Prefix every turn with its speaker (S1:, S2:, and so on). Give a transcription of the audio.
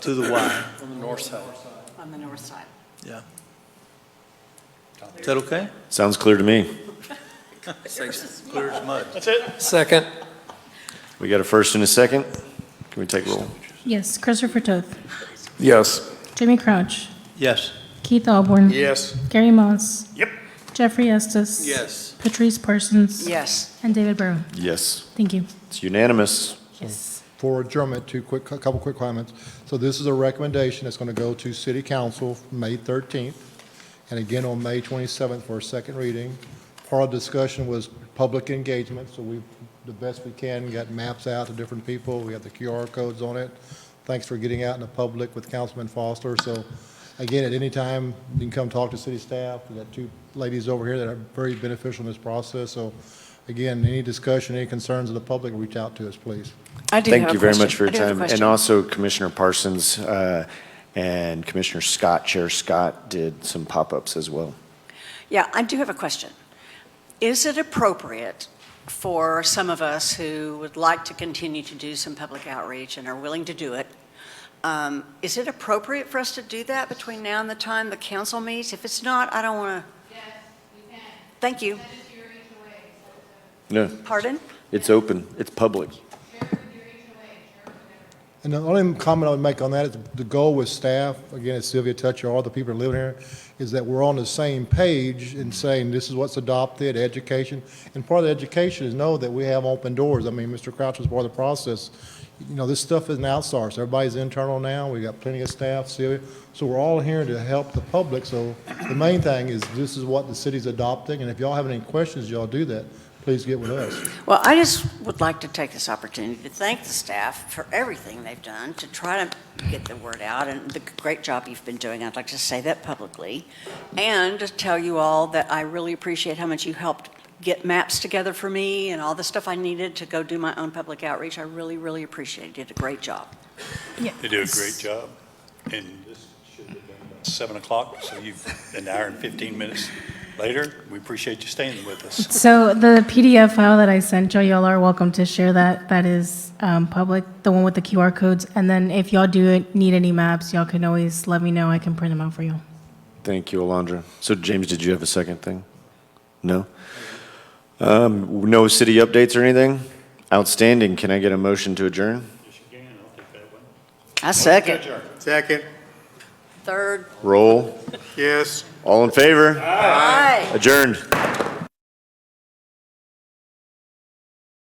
S1: to the Y,
S2: on the north side.
S3: on the north side.
S1: yeah. Is that okay?
S4: Sounds clear to me.
S1: Clear as mud.
S5: Second.
S4: We got a first and a second. Can we take roll?
S6: Yes, Christopher Toth,
S5: Yes.
S6: Jimmy Crouch,
S1: Yes.
S6: Keith Alborn,
S5: Yes.
S6: Gary Moss.
S4: Yep.
S6: Jeffrey Estes.
S2: Yes.
S6: Patrice Parsons.
S3: Yes.
S6: And David Burrow.
S4: Yes,
S6: Thank you.
S4: it's unanimous.
S6: Yes.
S7: for adjournment, two quick, a couple quick comments. So this is a recommendation that's going to go to city council May 13th, and again on May 27th for a second reading. Part of the discussion was public engagement, so we, the best we can, got maps out to different people, we have the QR codes on it. Thanks for getting out in the public with Councilman Foster, so again, at any time, you can come talk to city staff. we got two ladies over here that are very beneficial in this process, so again, any discussion, any concerns of the public, reach out to us, please.
S3: I do have
S4: Thank
S3: a
S4: you very
S3: question.
S4: much for
S3: I
S4: your
S3: do have a
S4: time. And
S3: question.
S4: also Commissioner Parsons uh, and Commissioner Scott, Chair Scott did some pop-ups as well.
S3: Yeah, I do have a question. Is it appropriate for some of us who would like to continue to do some public outreach and are willing to do it, um, is it appropriate for us to do that between now and the time the council meets? If it's not, I don't want to,
S8: Yes, you can.
S3: thank you.
S8: That is your HOA, so it's
S4: No,
S3: Pardon?
S4: it's open, it's public.
S8: a share with your HOA, share with whatever.
S7: And the only comment I would make on that is the goal with staff, again, as Sylvia touched, or all the people that live here, is that we're on the same page in saying this is what's adopted, education. And part of the education is know that we have open doors. I mean, Mr. Crouch was part of the process. You know, this stuff isn't outsourced. Everybody's internal now. We've got plenty of staff, Sylvia. So we're all here to help the public. So the main thing is this is what the city's adopting. And if y'all have any questions, y'all do that. Please get with us.
S3: Well, I just would like to take this opportunity to thank the staff for everything they've done to try to get the word out and the great job you've been doing. I'd like to say that publicly. And to tell you all that I really appreciate how much you helped get maps together for me and all the stuff I needed to go do my own public outreach. I really, really appreciate it. You Did a great job.
S9: They do a great job, and this should have been about 7 o'clock, so you've, an hour and 15 minutes later. We appreciate you staying with us.
S6: So the PDF file that I sent y'all, y'all are welcome to share that. That is um, public, the one with the QR codes. And then if y'all do need any maps, y'all can always let me know. I can print them out for y'all.
S4: Thank you, Alondra. So James, did you have a second thing? No? Um, No city updates or anything? Outstanding. Can I get a motion to adjourn?
S3: I second.
S2: Second,
S3: Third.
S4: Roll.
S2: yes.
S4: All in favor?
S3: Aye.
S4: Adjourned.